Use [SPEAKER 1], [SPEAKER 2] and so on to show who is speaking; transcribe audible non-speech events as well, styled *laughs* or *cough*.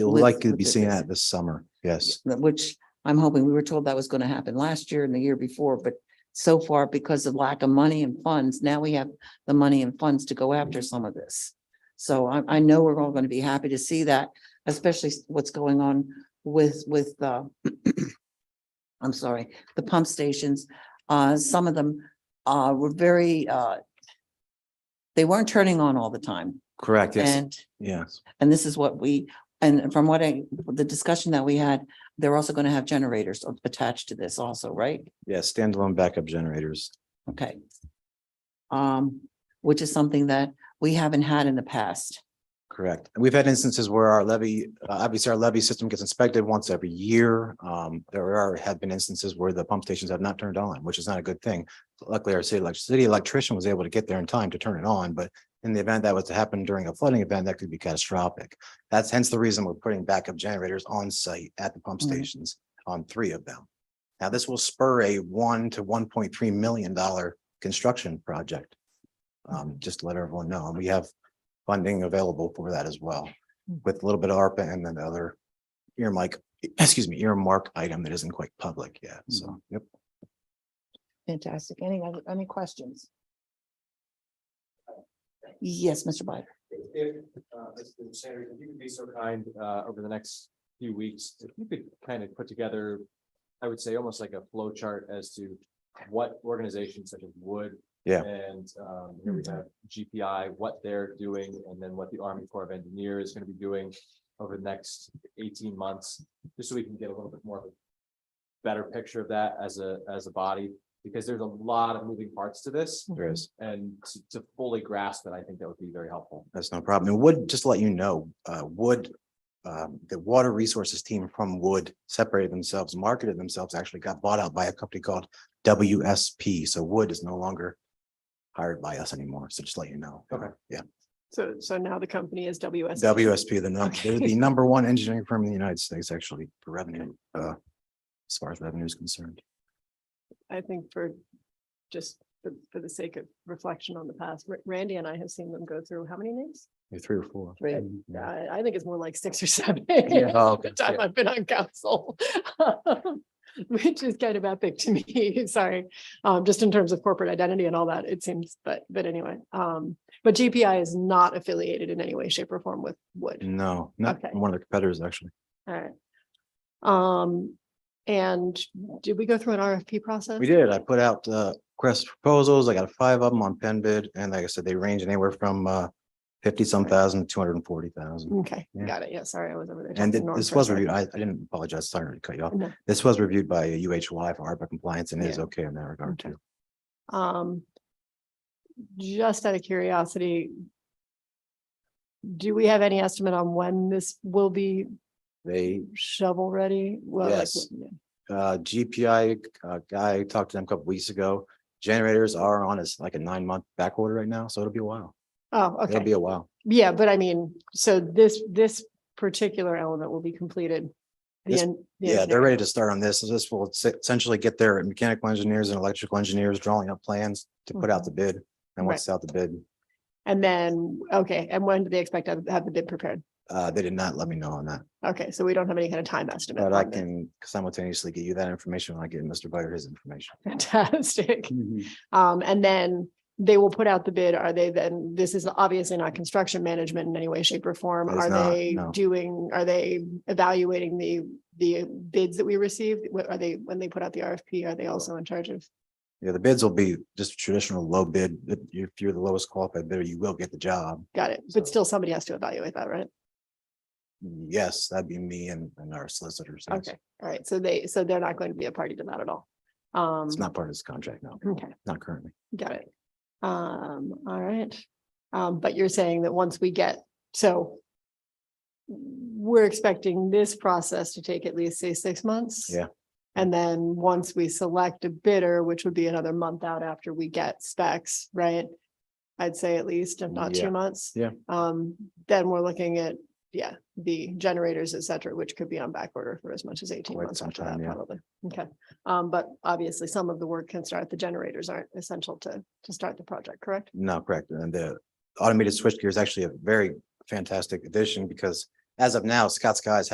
[SPEAKER 1] You'll
[SPEAKER 2] with-
[SPEAKER 1] likely
[SPEAKER 2] with
[SPEAKER 1] be
[SPEAKER 2] the-
[SPEAKER 1] seeing that this summer, yes.
[SPEAKER 2] that- which I'm hoping, we were told that was going to happen last year and the year before, but so far, because of lack of money and funds, now we have the money and funds to go after some of this. So I, I know we're all going to be happy to see that, especially s- what's going on with, with, uh, *clears throat* I'm sorry, the pump stations. Uh, some of them, uh, were very, uh, they weren't turning on all the time.
[SPEAKER 1] Correct, yes,
[SPEAKER 2] And
[SPEAKER 1] yes.
[SPEAKER 2] and this is what we, and from what I, the discussion that we had, they're also going to have generators attached to this also, right?
[SPEAKER 1] Yeah, standalone backup generators.
[SPEAKER 2] Okay. Um, which is something that we haven't had in the past.
[SPEAKER 1] Correct. And we've had instances where our levy, uh, obviously our levy system gets inspected once every year. Um, there are, have been instances where the pump stations have not turned on, which is not a good thing. Luckily, our city elec- city electrician was able to get there in time to turn it on, but in the event that was to happen during a flooding event, that could be catastrophic. That's hence the reason we're putting backup generators on site at the pump
[SPEAKER 2] Mhm.
[SPEAKER 1] stations on three of them. Now, this will spur a one to one point three million dollar construction project. Um, just to let everyone know, and we have funding available for that as well, with a little bit of ARPA and then the other earmark, excuse me, earmark item that isn't quite public yet, so, yep.
[SPEAKER 2] Fantastic. Any, other- any questions? Yes, Mr. Bider.
[SPEAKER 3] If, uh, Mr. Sanders, if you could be so kind, uh, over the next few weeks, if you could kind of put together, I would say almost like a flow chart as to what organizations such as Wood.
[SPEAKER 1] Yeah.
[SPEAKER 3] And, um, here we have GPI, what they're doing, and then what the Army Corps of Engineers is gonna be doing over the next eighteen months, just so we can get a little bit more of a better picture of that as a, as a body, because there's a lot of moving parts to this,
[SPEAKER 1] There is.
[SPEAKER 3] and to- to fully grasp it, I think that would be very helpful.
[SPEAKER 1] That's no problem. And Wood, just to let you know, uh, Wood, um, the water resources team from Wood separated themselves, marketed themselves, actually got bought out by a company called WSP. So Wood is no longer hired by us anymore. So just let you know.
[SPEAKER 3] Okay.
[SPEAKER 1] Yeah.
[SPEAKER 4] So, so now the company is WS.
[SPEAKER 1] WSP, the number, they're the
[SPEAKER 4] Okay.
[SPEAKER 1] number one engineering firm in the United States, actually, for revenue, uh, as far as revenue is concerned.
[SPEAKER 4] I think for, just for, for the sake of reflection on the past, Ra- Randy and I have seen them go through how many names?
[SPEAKER 1] Maybe Three or four.
[SPEAKER 2] Three.
[SPEAKER 1] Yeah.
[SPEAKER 4] I, I think it's more like six or seven. *laughs*
[SPEAKER 3] Yeah.
[SPEAKER 1] Oh,
[SPEAKER 4] The time I've been on council. *laughs* Which is kind of epic to me, *laughs* sorry, um, just in terms of corporate identity and all that, it seems, but, but anyway, um, but GPI is not affiliated in any way, shape or form with Wood.
[SPEAKER 1] No, not
[SPEAKER 4] Okay.
[SPEAKER 1] one of the competitors, actually.
[SPEAKER 4] All
[SPEAKER 1] Mm.
[SPEAKER 4] right. Um, and did we go through an RFP process?
[SPEAKER 1] We did. I put out uh request proposals. I got five of them on pen bid and like I said, they range anywhere from uh fifty some thousand to two hundred and forty thousand.
[SPEAKER 4] Okay,
[SPEAKER 1] Yeah.
[SPEAKER 4] got it. Yeah, sorry, I was over there.
[SPEAKER 1] And
[SPEAKER 4] talking
[SPEAKER 1] thi-
[SPEAKER 4] Norm
[SPEAKER 1] this
[SPEAKER 4] for a
[SPEAKER 1] was
[SPEAKER 4] sec.
[SPEAKER 1] reviewed. I I didn't apologize. Sorry to cut you off.
[SPEAKER 4] No.
[SPEAKER 1] This was reviewed by uh, UHY for ARPA compliance and it is
[SPEAKER 4] Yeah.
[SPEAKER 1] okay in that regard
[SPEAKER 4] Okay.
[SPEAKER 1] too.
[SPEAKER 4] Um, just out of curiosity, do we have any estimate on when this will be
[SPEAKER 1] They
[SPEAKER 4] shovel ready? Well, like,
[SPEAKER 1] Yes.
[SPEAKER 4] w-
[SPEAKER 1] uh GPI uh guy talked to them a couple weeks ago. Generators are on us like a nine month back order right now, so it'll be a while.
[SPEAKER 4] Oh,
[SPEAKER 1] It'll be
[SPEAKER 4] okay.
[SPEAKER 1] a while.
[SPEAKER 4] Yeah, but I mean, so this, this particular element will be completed. the
[SPEAKER 1] This-
[SPEAKER 4] en- the
[SPEAKER 1] Yeah,
[SPEAKER 4] engineer-
[SPEAKER 1] they're ready to start on this. So This will se- essentially get their mechanical engineers and electrical engineers drawing up plans to put out the bid. And once
[SPEAKER 4] Mm-hmm. Right.
[SPEAKER 1] it's out the bid,
[SPEAKER 4] And then, okay, and when do they expect to have the bid prepared?
[SPEAKER 1] Uh, they did not let me know on that,
[SPEAKER 4] Okay, so we don't have any kind of time estimate.
[SPEAKER 1] but I
[SPEAKER 4] on this.
[SPEAKER 1] can simultaneously get you that information when I get Mr. Byer his information.
[SPEAKER 4] *laughs* Fantastic.
[SPEAKER 1] Mm-hmm.
[SPEAKER 4] Um, and then they will put out the bid. Are they then, this is obviously not construction management in any way, shape or form.
[SPEAKER 1] It is
[SPEAKER 4] Are
[SPEAKER 1] not,
[SPEAKER 4] they
[SPEAKER 1] no.
[SPEAKER 4] doing, are they evaluating the, the bids that we received? What are they, when they put out the RFP, are they also in charge of?
[SPEAKER 1] Yeah, the bids will be just traditional low bid. If you- if you're the lowest qualified bidder, you will get the job.
[SPEAKER 4] Got it.
[SPEAKER 1] So-
[SPEAKER 4] But still somebody has to evaluate that, right?
[SPEAKER 1] Yes, that'd be me and, and our solicitors. yes.
[SPEAKER 4] Okay. All right. So they, so they're not going to be a party to that at all. Um,
[SPEAKER 1] It's not part of this contract, no,
[SPEAKER 4] okay,
[SPEAKER 1] not currently.
[SPEAKER 4] got it. Um, all right. Um, but you're saying that once we get, so we're expecting this process to take at least, say, six months?
[SPEAKER 1] Yeah.
[SPEAKER 4] And then once we select a bidder, which would be another month out after we get specs, right? I'd say at least, if not
[SPEAKER 1] Yeah.
[SPEAKER 4] two months.
[SPEAKER 1] Yeah.
[SPEAKER 4] Um, then we're looking at, yeah, the generators, et cetera, which could be on back order for as much as eighteen
[SPEAKER 1] Quite
[SPEAKER 4] months
[SPEAKER 1] some
[SPEAKER 4] after
[SPEAKER 1] time,
[SPEAKER 4] that,
[SPEAKER 1] yeah.
[SPEAKER 4] probably. Okay, um, but obviously some of the work can start, the generators aren't essential to, to start the project, correct?
[SPEAKER 1] No, correct. And the automated switchgear is actually a very fantastic addition because as of now, Scott Skies